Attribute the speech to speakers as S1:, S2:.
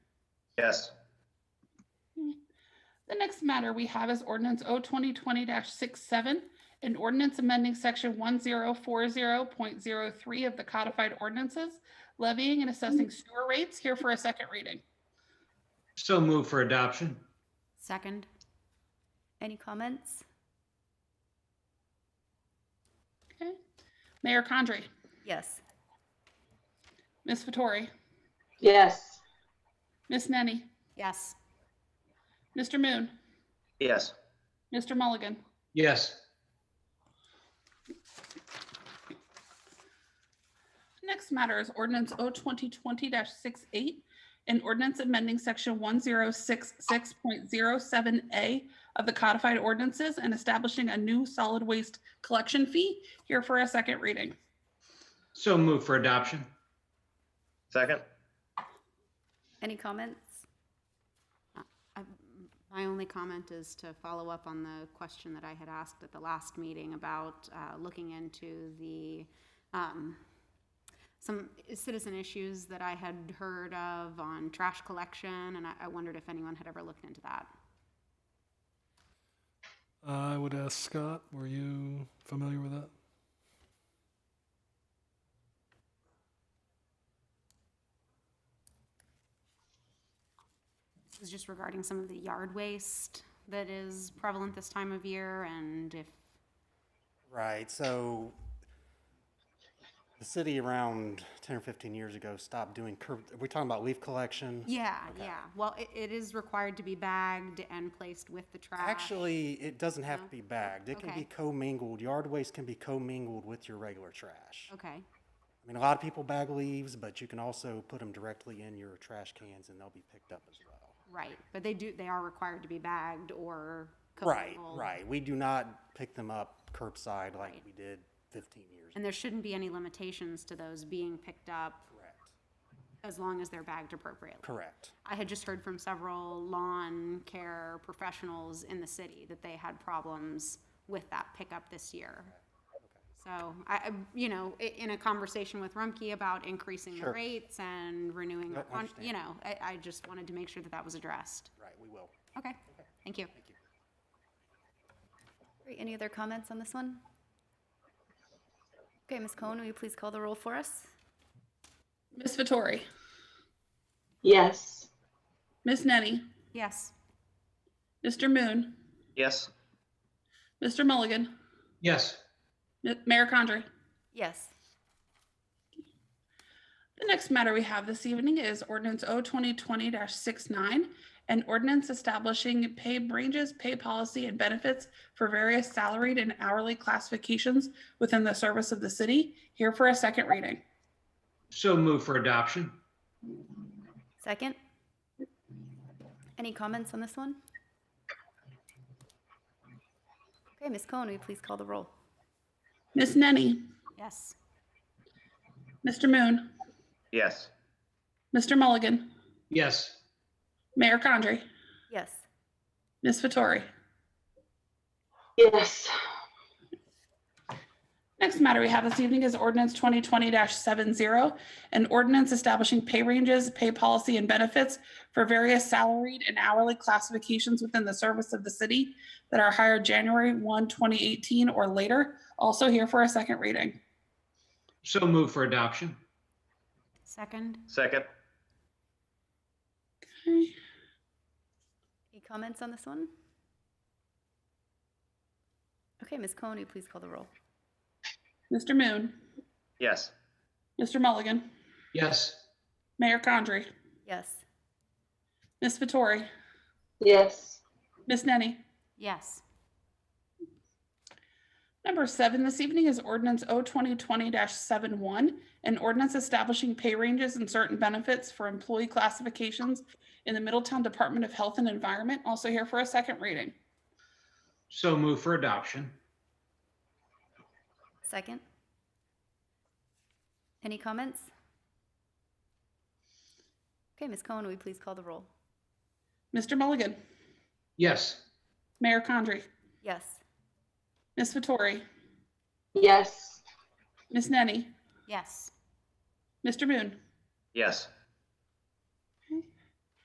S1: Yes.
S2: The next matter we have is ordinance O twenty twenty 67 an ordinance amending section one zero four zero point zero three of the codified ordinances levying and assessing sewer rates here for a second reading.
S3: So move for adoption.
S4: Second. Any comments?
S2: Okay. Mayor Condrey,
S4: Yes.
S2: Ms. Vettori,
S5: yes,
S2: Ms. Nenny,
S4: Yes.
S2: Mr. Moon,
S1: Yes.
S2: Mr. Mulligan.
S3: Yes.
S2: Next matter is ordinance O twenty twenty 68 an ordinance amending section one zero six six point zero seven A of the codified ordinances and establishing a new solid waste collection fee here for a second reading.
S3: So move for adoption.
S1: Second?
S4: Any comments?
S6: Uh, I- My only comment is to follow up on the question that I had asked at the last meeting about uh, looking into the, um, some citizen issues that I had heard of on trash collection, and I- I wondered if anyone had ever looked into that.
S7: I would ask Scott, were you familiar with that?
S6: This is just regarding some of the yard waste that is prevalent this time of year, and if
S8: Right, so the city around ten or fifteen years ago stopped doing curb, are we talking about leaf collection?
S6: Yeah, yeah. Well, it, it is required to be bagged and placed with the trash.
S8: Actually, it doesn't have to be bagged, it can
S6: Okay.
S8: be commingled, yard waste can be commingled with your regular trash.
S6: Okay,
S8: I mean, a lot of people bag leaves, but you can also put them directly in your trash cans and they'll be picked up as well.
S6: right. But they do, they are required to be bagged or.
S8: Right,
S6: commingled.
S8: right, we do not pick them up curbside like we did fifteen years
S6: And
S8: ago.
S6: there shouldn't be any limitations to those being picked up
S8: Correct,
S6: as long as they're bagged appropriately.
S8: correct.
S6: I had just heard from several lawn care professionals in the city that they had problems with that pickup this year. So I, I- you know, i- in a conversation with Rumkey about increasing the
S8: Sure.
S6: rates and renewing, the
S8: Yep, I
S6: con-
S8: understand.
S6: you know, I, I just wanted to make sure that that was addressed.
S8: Right, we will.
S6: Okay, thank you.
S4: Great. Any other comments on this one? Okay, Ms. Cohen, will you please call the roll for us?
S2: Ms. Vittori,
S5: yes,
S2: Ms. Nenny,
S6: Yes,
S2: Mr. Moon,
S1: Yes.
S2: Mr. Mulligan,
S3: Yes.
S2: M- Mayor Condrey.
S4: Yes.
S2: The next matter we have this evening is ordinance O twenty twenty 69 an ordinance establishing pay ranges, pay policy, and benefits for various salaried and hourly classifications within the service of the city, here for a second reading.
S3: So move for adoption.
S4: Second. Any comments on this one? Okay, Ms. Cohen, will you please call the roll?
S2: Ms. Nenny,
S6: yes,
S2: Mr. Moon,
S1: Yes.
S2: Mr. Mulligan,
S3: Yes.
S2: Mayor Condrey,
S4: Yes.
S2: Ms. Vettori.
S5: yes,
S2: Next matter we have this evening is ordinance twenty twenty 70 an ordinance establishing pay ranges, pay policy, and benefits for various salaried and hourly classifications within the service of the city that are hired January 1, 2018, or later. Also here for a second reading.
S3: So move for adoption.
S6: second,
S1: Second?
S4: Any comments on this one? Okay, Ms. Cohen, will you please call the roll?
S2: Mr. Moon,
S1: Yes.
S2: Mr. Mulligan,
S3: Yes.
S2: Mayor Condrey,
S4: Yes.
S2: Ms. Vittori,
S5: yes,
S2: Ms. Nenny.
S6: yes,
S2: Number seven this evening is ordinance O twenty twenty 71 an ordinance establishing pay ranges and certain benefits for employee classifications in the Middletown Department of Health and Environment, also here for a second reading.
S3: So move for adoption.
S4: Second. Any comments? Okay, Ms. Cohen, will you please call the roll?
S2: Mr. Mulligan,
S3: Yes.
S2: Mayor Condrey,
S4: Yes.
S2: Ms. Vittori,
S5: yes,
S2: Ms. Nenny,
S6: yes,
S2: Mr. Moon,
S1: Yes.